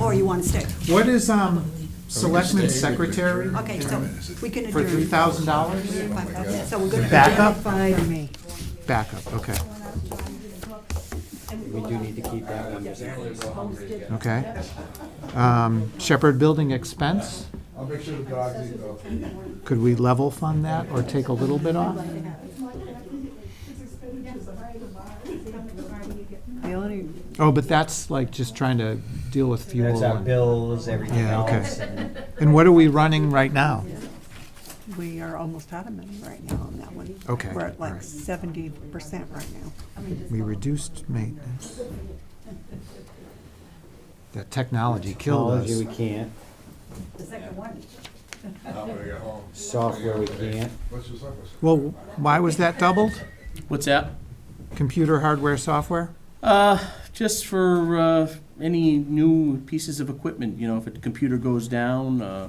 or you want to stay? What is, um, selectman secretary Okay, so we can for adjourn. three thousand dollars? $5,000. So we're going to. Backup? Five, me. Backup, okay, We do need to keep that one. just in case. okay. Um, Shepherd Building expense, I'll make sure the dogs eat though. could we level fund that or take a little bit off? The only, Oh, but that's like just trying to deal with fuel. That's our and- bills, everything Yeah, okay. else. and- And what are we running right now? we are almost out of money right now on that one. Okay, We're at all right. like seventy percent right now. We reduced maintenance. That technology killed us. Technology, we can't. The second one. Not when I get home. Software, we can't. What's your software? Well, why was that doubled? What's that? Computer hardware, software? Uh, just for, uh, any new pieces of equipment, you know, if a computer goes down, uh,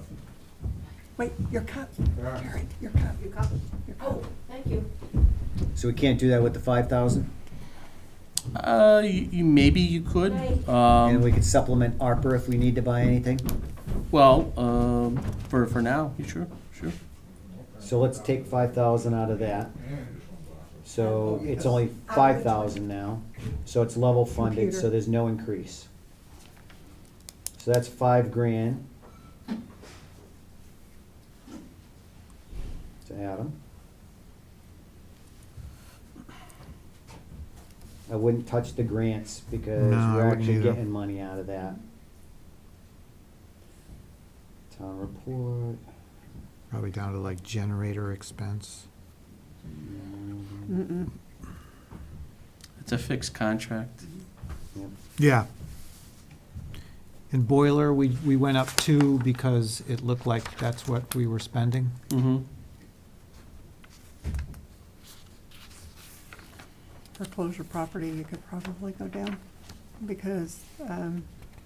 Wait, your cup, Yeah. Karen, your cup, your cup, your cup. Thank you. So we can't do that with the five thousand? uh, you, you, maybe you could. Right. And we Um, could supplement ARPA if we need to buy anything? well, um, for, for now, you sure, sure. So let's take five thousand out of that. So it's only five thousand now, so it's level funded, so Computer. there's no increase. So that's five grand. To Adam. I wouldn't touch the grants because No, I we're wouldn't actually either. getting money out of that. Town report. Probably down to like generator expense. mm, Mm-mm. It's a fixed contract. yep. Yeah. And boiler, we, we went up two because it looked like that's what we were spending. Mm-hmm. Foreclosure property, you could probably go down because, um,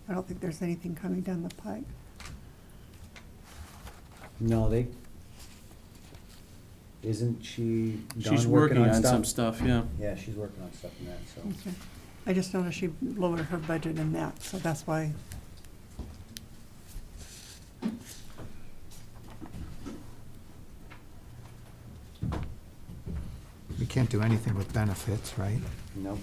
I don't think there's anything coming down the pipe. No, they, isn't she She's done working working on on some stuff? stuff, yeah. Yeah, she's working on stuff in that, so. Okay. I just noticed she lowered her budget in that, so that's why. We can't do anything with benefits, right? Nope.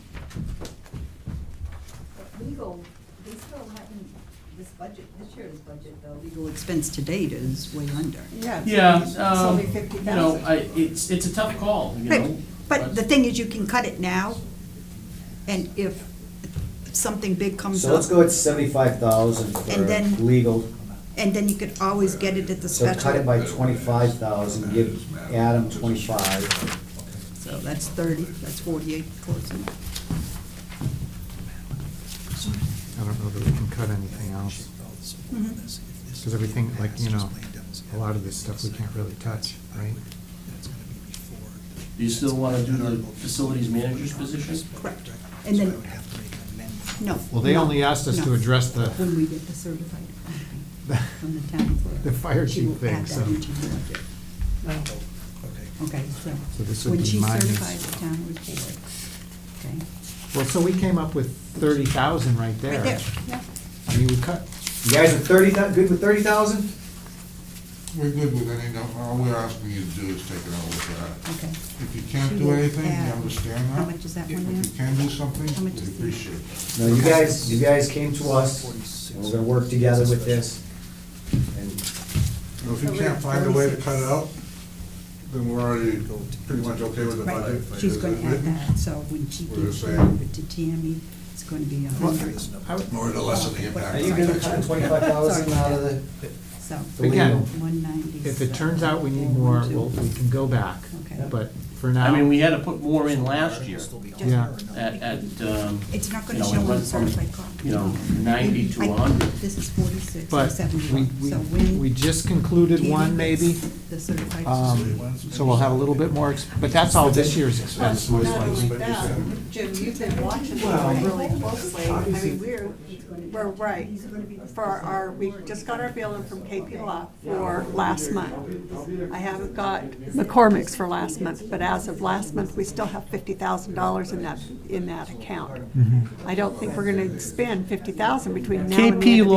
Legal, they still haven't, this budget, this year's budget though, Legal expense to date is way under. Yeah. it's Yeah, only- it's um, only you know, 50,000. I, it's, it's a tough call, you know. But the thing is, you can cut it now, and if something big comes So let's up, go at seventy-five And thousand for then- legal, and then you could always get it at the so cut it special. by twenty-five thousand, give Adam twenty-five. So that's thirty, that's forty-eight, close enough. I don't know that we can cut anything else. Because everything, like, you know, a lot of this stuff we can't really touch, right? Do you still wanna do the facilities manager's position? Correct. And then, no. Well, they no, only asked us to no. address the, When we get the certified funding from the town clerk. The fire she chief will thing, add that so- into the budget. Okay, so. So this would be When minus- she certifies the town report, okay? well, so we came up with thirty thousand right there. Right there, yeah. I mean, we cut, You guys are thirty, good with thirty thousand? We're good with any, all we're asking you to do is take it out with that. Okay. If you can't do anything, you understand that? How much is that one If you now? can do How something, much we is the- appreciate No, you guys, you guys came to us, and we're gonna work together with this. And it. If you can't find a way to cut it out, then we're already pretty much okay with the budget. Right, she's gonna add that, so when she We're gives just it saying- over to Tammy, it's gonna be a hundred, More to lessen the impact. Are you gonna cut twenty-five thousand out of the? so. The Again, legal? One ninety. if it turns out we need more, we'll, we can go back, Okay. but for now. I mean, we had to put more in last year Yeah. at, at, um, It's not gonna you know, show it on went the from, certified copy. you know, 90 to I- 100. This is forty-six or But we, seventy-one, so we, when. we just concluded Tammy one gets maybe, The certified. um, so we'll have a little bit more, ex- but that's all this year's expense was like. Jim, you've been watching Well, them really closely. I mean, we're, we're right. For our, we just got our billing from KP Law for last month. I haven't got McCormick's for last month, but as of last month, we still have fifty thousand dollars in that, in that account. I don't think we're gonna spend fifty thousand between now and the end KP of the